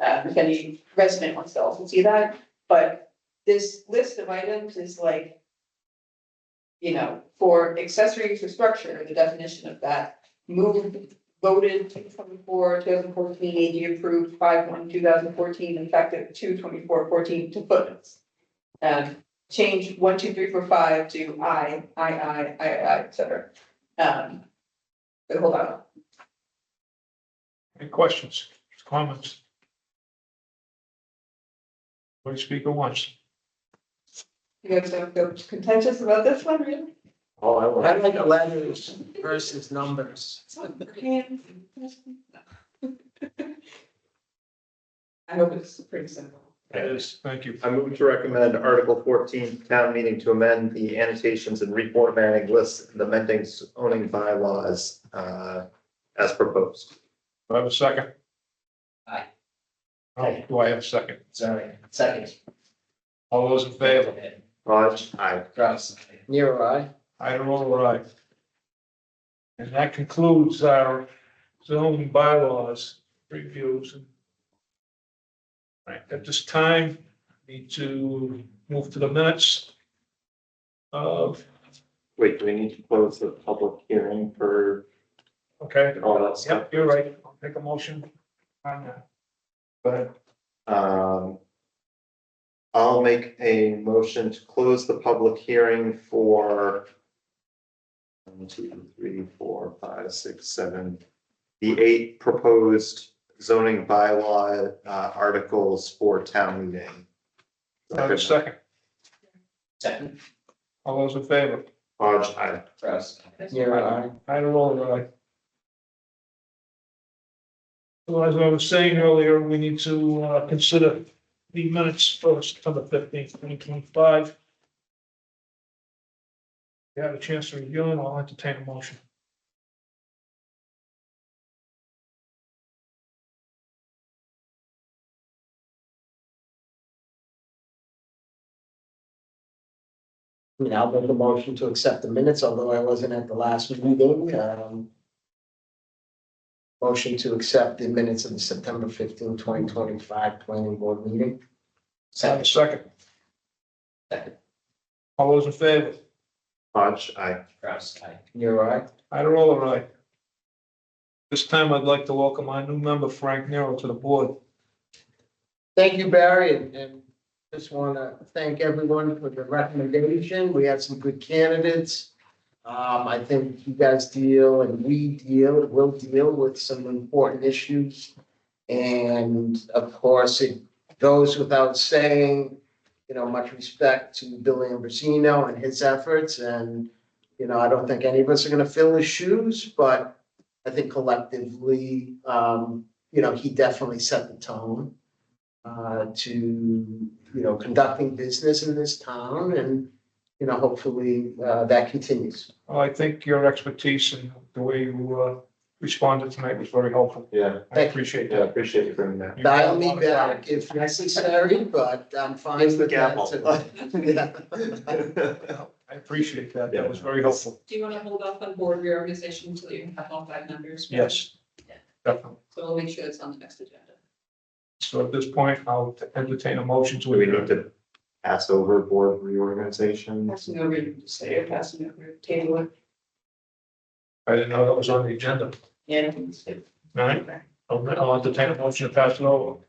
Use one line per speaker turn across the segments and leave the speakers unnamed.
um, if any resident wants to also see that, but this list of items is like. You know, for accessories or structure, the definition of that, moved, voted 2014, AG approved five one two thousand fourteen, effective two twenty four fourteen to footnotes. Um, change one, two, three, four, five to I, I, I, I, I, et cetera. Um, but hold on,
Any questions, comments? Please speak at once.
you guys don't feel contentious about this one, really?
Oh, I will.
I like letters versus numbers.
I hope it's pretty simple.
Yes, thank you.
I move to recommend Article fourteen, town meeting to amend the annotations and reformatting lists and amending zoning bylaws, uh, as proposed.
Do I have a second?
Aye.
Oh, do I have a second?
Sorry, second.
All those in favor?
Raj, aye.
Gross.
Nero, I.
I don't know what I. And that concludes our zoning bylaws reviews. Right, at this time, need to move to the minutes. Of,
Wait, do we need to close the public hearing for
okay,
all that stuff?
yep, you're right, I'll take a motion. on that. Go ahead.
Um. I'll make a motion to close the public hearing for. One, two, three, four, five, six, seven. The eight proposed zoning bylaw uh articles for town meeting.
Do I have a second,
Second.
all those in favor?
Hodge, aye.
Gross.
Nero, I.
I don't know that I. So as I was saying earlier, we need to uh, consider the minutes for September fifteenth, twenty twenty-five. If you have a chance to review them, I'll entertain a motion.
I mean, I'll make a motion to accept the minutes, although I wasn't at the last meeting, um. Motion to accept the minutes of the September 15, 2025 planning board meeting.
Have
Second.
a second.
Second.
All those in favor?
Hodge, aye.
Gross. Aye.
Nero, I.
I roll all right. This time I'd like to welcome our new member Frank Nero to the board.
Thank you, Barry, and, and just want to thank everyone for the recommendation. We had some good candidates. Um, I think you guys deal and we deal, will deal with some important issues. And of course, it goes without saying, you know, much respect to Billy Ambrosino and his efforts and, you know, I don't think any of us are gonna fill his shoes, but I think collectively, um, you know, he definitely set the tone uh, to, you know, conducting business in this town and, you know, hopefully, uh, that continues.
Well, I think your expertise and the way you uh, responded tonight was very helpful.
Yeah,
I
Thank you.
appreciate
yeah,
that.
appreciate you bringing that.
You've done a
Dial me
lot of
back if necessary, but I'm fine
Here's the
with
gavel.
that. too.
work. I appreciate that. That was very helpful.
Do you want to hold off on board reorganization until you have all five members?
Yes. Definitely.
So we'll make sure it's on the next agenda.
So at this point, I'll entertain a motion
Do we need
adjourn.
to pass over board reorganization?
Passing over, you can just say you're passing over, table it.
I didn't know that was on the agenda.
Yeah.
All right, I'll I'll entertain a motion to pass it over.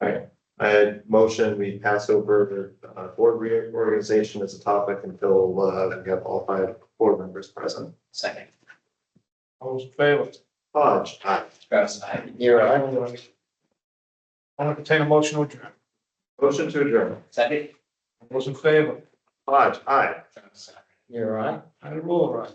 I had motion, we pass over uh, board reorganization as a topic until uh, we have all five board members present.
Second.
All those in favor?
Hodge, aye.
Gross. Aye.
You're right.
I'll entertain a motion to adjourn.
Motion to adjourn.
Second.
All Those in favor?
Hodge, aye.
Gross. Aye.
You're right.
I roll right.